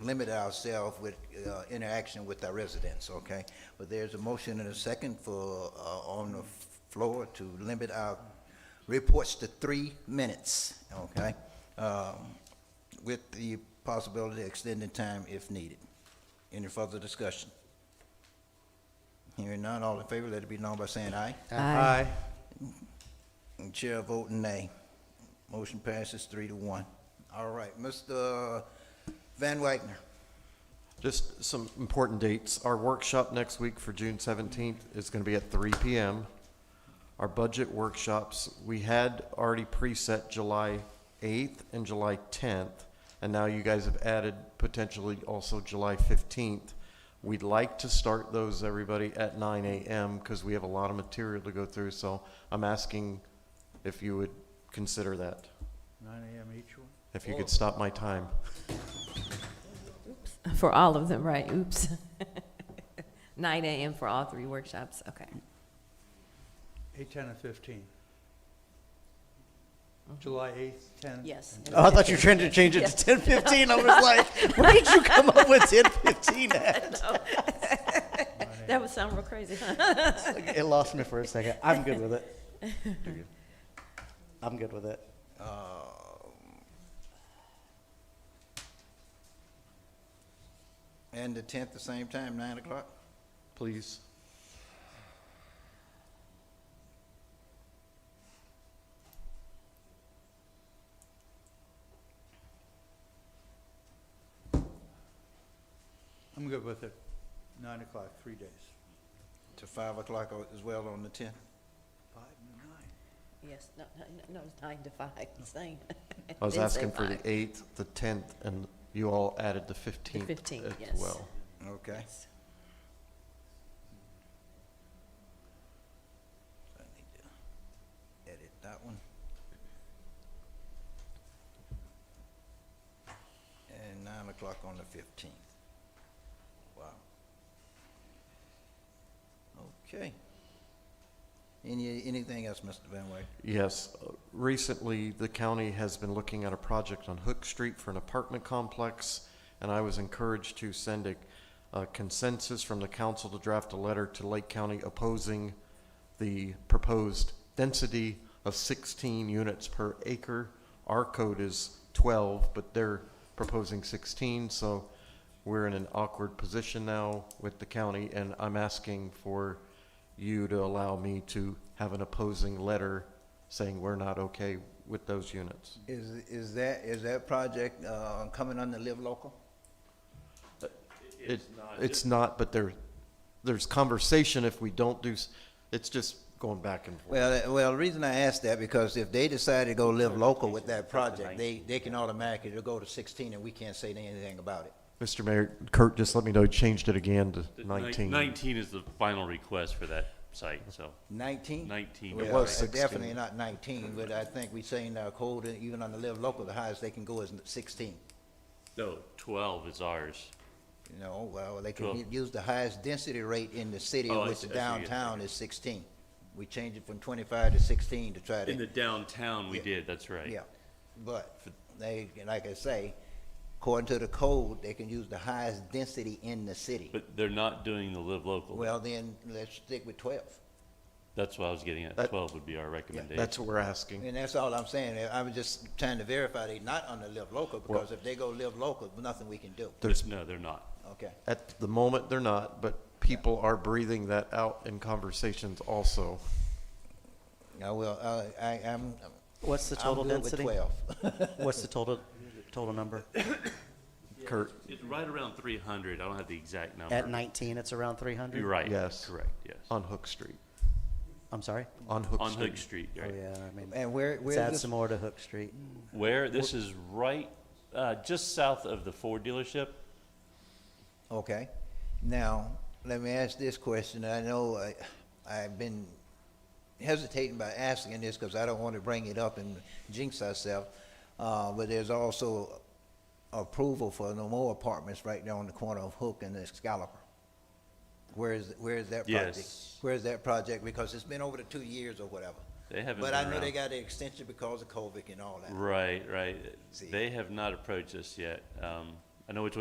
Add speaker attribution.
Speaker 1: limit ourselves with uh, interaction with our residents, okay? But there's a motion and a second for, uh, on the floor to limit our reports to three minutes, okay? Um, With the possibility of extending time if needed. Any further discussion? Hearing none, all in favor, let it be known by saying aye.
Speaker 2: Aye.
Speaker 1: And Chair voting nay. Motion passes three to one. All right, Mr. Van Wagner.
Speaker 2: Just some important dates. Our workshop next week for June seventeenth is gonna be at three PM. Our budget workshops, we had already preset July eighth and July tenth, and now you guys have added potentially also July fifteenth. We'd like to start those, everybody, at nine AM, because we have a lot of material to go through, so I'm asking if you would consider that,
Speaker 3: Nine AM each one?
Speaker 2: if you could stop my time.
Speaker 4: For all of them, right? Oops. 9 a.m. for all three workshops. Okay.
Speaker 3: Eight, ten, and fifteen. July eighth, ten?
Speaker 4: Yes.
Speaker 5: Oh, I thought you were trying to change it to ten fifteen. I was like, where did you come up with ten fifteen at?
Speaker 4: That would sound real crazy, huh?
Speaker 5: It lost me for a second. I'm good with it. I'm good with it.
Speaker 1: Um, And the tenth, the same time, nine o'clock?
Speaker 2: Please.
Speaker 3: I'm good with it. Nine o'clock, three days.
Speaker 1: To five o'clock o- as well on the tenth?
Speaker 3: Five and nine.
Speaker 4: Yes, no, no, no, it's 9 to 5, same.
Speaker 2: I was
Speaker 4: Didn't say
Speaker 2: asking for the
Speaker 4: five.
Speaker 2: 8th, the 10th, and you all added the 15th
Speaker 4: 15th,
Speaker 2: as
Speaker 4: yes.
Speaker 2: well.
Speaker 1: Okay.
Speaker 4: Yes.
Speaker 1: I need to Edit that one. And nine o'clock on the fifteenth. Wow. Okay. Any, anything else, Mr. Van Wagner?
Speaker 2: Yes, uh, recently, the county has been looking at a project on Hook Street for an apartment complex, and I was encouraged to send a a consensus from the council to draft a letter to Lake County opposing the proposed density of 16 units per acre. Our code is 12, but they're proposing 16, so we're in an awkward position now with the county, and I'm asking for you to allow me to have an opposing letter saying we're not okay with those units.
Speaker 1: Is, is that, is that project, uh, coming under Live Local?
Speaker 2: It's not. It's not, but there, there's conversation if we don't do, s- it's just going back and forth.
Speaker 1: Well, uh, well, the reason I asked that, because if they decide to go Live Local with that project, they, they can automatically go to sixteen and we can't say anything about it.
Speaker 2: Mr. Mayor, Kurt just let me know, he changed it again to
Speaker 6: The ni-
Speaker 2: 19.
Speaker 6: Nineteen is the final request for that site, so.
Speaker 1: Nineteen?
Speaker 6: 19.
Speaker 2: It
Speaker 1: Well,
Speaker 2: was
Speaker 1: uh,
Speaker 2: 16.
Speaker 1: Definitely not nineteen, but I think we saying our code, uh, even on the Live Local, the highest they can go is sixteen.
Speaker 6: No, twelve is ours.
Speaker 1: You know, well, they can
Speaker 6: Well-
Speaker 1: u- use the highest density rate in the city,
Speaker 6: Oh, I
Speaker 1: which
Speaker 6: see- I see, yeah.
Speaker 1: downtown is sixteen. We changed it from twenty-five to sixteen to try to.
Speaker 6: In the downtown, we
Speaker 1: Yeah.
Speaker 6: did, that's right.
Speaker 1: Yeah, but they, like I say, according to the code, they can use the highest density in the city.
Speaker 6: But they're not doing the live local.
Speaker 1: Well, then, let's stick with twelve.
Speaker 6: That's what I was getting at.
Speaker 2: That-
Speaker 6: Twelve would be our recommendation.
Speaker 2: That's what we're asking.
Speaker 1: And that's all I'm saying. I was just trying to verify they not on the live local, because if they go live local, nothing we can do.
Speaker 2: There's,
Speaker 6: No, they're not.
Speaker 1: Okay,
Speaker 2: at the moment, they're not, but people are breathing that out in conversations also.
Speaker 1: I will, uh, I, I'm,
Speaker 5: What's the
Speaker 1: I'm
Speaker 5: total
Speaker 1: good with
Speaker 5: density?
Speaker 1: twelve.
Speaker 5: What's the total, total number?
Speaker 2: Kurt,
Speaker 6: It's right around three hundred. I don't have the exact number.
Speaker 5: At nineteen, it's around three hundred?
Speaker 6: You're right.
Speaker 2: Yes.
Speaker 6: Correct, yes.
Speaker 2: on Hook Street,
Speaker 5: I'm sorry?
Speaker 2: on Hook
Speaker 6: On
Speaker 2: Street.
Speaker 6: Hook Street,
Speaker 5: Oh,
Speaker 6: right.
Speaker 5: yeah, I mean,
Speaker 1: And where, where is
Speaker 5: let's add
Speaker 1: this-
Speaker 5: some more to Hook Street.
Speaker 6: Where, this is right, uh, just south of the Ford dealership.
Speaker 1: Okay. Now, let me ask this question. I know I, I've been hesitating by asking this because I don't want to bring it up and jinx ourselves. Uh, but there's also approval for no more apartments right there on the corner of Hook and Excalibur. Where is, where is that project?
Speaker 6: Yes.
Speaker 1: Where is that project? Because it's been over the two years or whatever.
Speaker 6: They haven't
Speaker 1: But
Speaker 6: been
Speaker 1: I know they
Speaker 6: around.
Speaker 1: got the extension because of COVID and all that.
Speaker 6: Right, right.
Speaker 1: See.
Speaker 6: They have not approached us yet. Um, I know which one